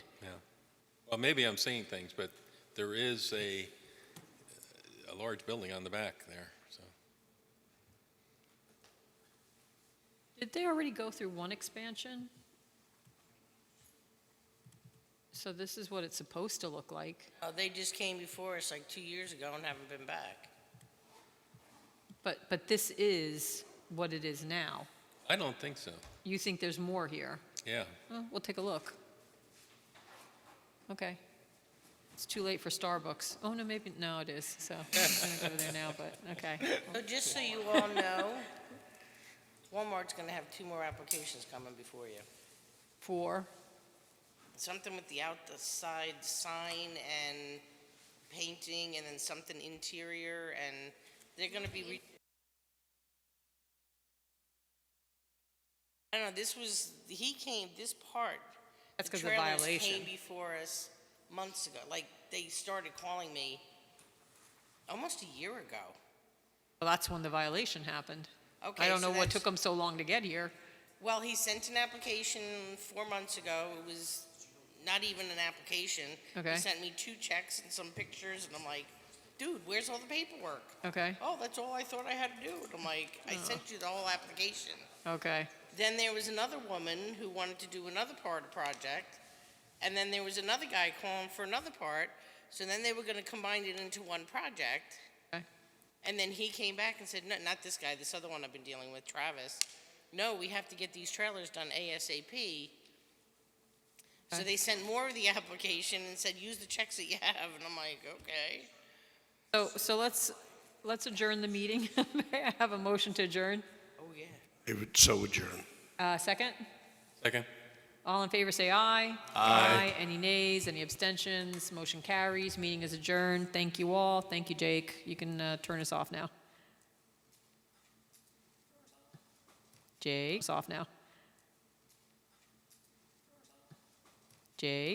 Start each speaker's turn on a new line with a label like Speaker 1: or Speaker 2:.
Speaker 1: Well, maybe I'm seeing things, but there is a, a large building on the back there, so.
Speaker 2: Did they already go through one expansion? So this is what it's supposed to look like,
Speaker 3: Uh, They just came before us like two years ago and haven't been back.
Speaker 2: but, but this is what it is now.
Speaker 1: I don't think so,
Speaker 2: You think there's more here?
Speaker 1: yeah.
Speaker 2: Well, we'll take a look. Okay. It's too late for Starbucks. Oh, no, maybe, no, it is, so I'm not gonna go there now, but, okay.
Speaker 3: So just so you all know, Walmart's going to have two more applications coming before you.
Speaker 2: Four,
Speaker 3: Something with the outside sign and painting, and then something interior, and they're going to be. Re- I don't know. This was he came. This part.
Speaker 2: That's
Speaker 3: the
Speaker 2: 'cause of
Speaker 3: trailers
Speaker 2: violation.
Speaker 3: Came before us months ago. Like they started calling me almost a year ago.
Speaker 2: well, that's when the violation happened. I
Speaker 3: Okay,
Speaker 2: don't
Speaker 3: so
Speaker 2: know what
Speaker 3: that's-
Speaker 2: took them so long to get here.
Speaker 3: Well, he sent an application four months ago. It was not even an application.
Speaker 2: Okay.
Speaker 3: He sent me two checks and some pictures, and I'm like, dude, where's all the paperwork?
Speaker 2: Okay,
Speaker 3: Oh, that's all I thought I had to do. And I'm like, I sent you the whole application.
Speaker 2: okay.
Speaker 3: Then there was another woman who wanted to do another part of the project, and then there was another guy calling for another part. So then they were going to combine it into one project.
Speaker 2: Okay.
Speaker 3: And then he came back and said, no, not this guy, this other one I've been dealing with, Travis. No, we have to get these trailers done ASAP. So
Speaker 2: Okay.
Speaker 3: they sent more of the application and said, use the checks that you have. And I'm like, okay.
Speaker 2: So, so let's, let's adjourn the meeting. May I have a motion to adjourn?
Speaker 3: Oh, yeah.
Speaker 4: It would so adjourn.
Speaker 2: Uh, second?
Speaker 1: Second?
Speaker 2: All in favor, say aye. Aye. Any nays, any abstentions, motion carries, meeting is adjourned. Thank you all, thank you, Jake. You can uh, turn us off now. Jake, us off now. Jake?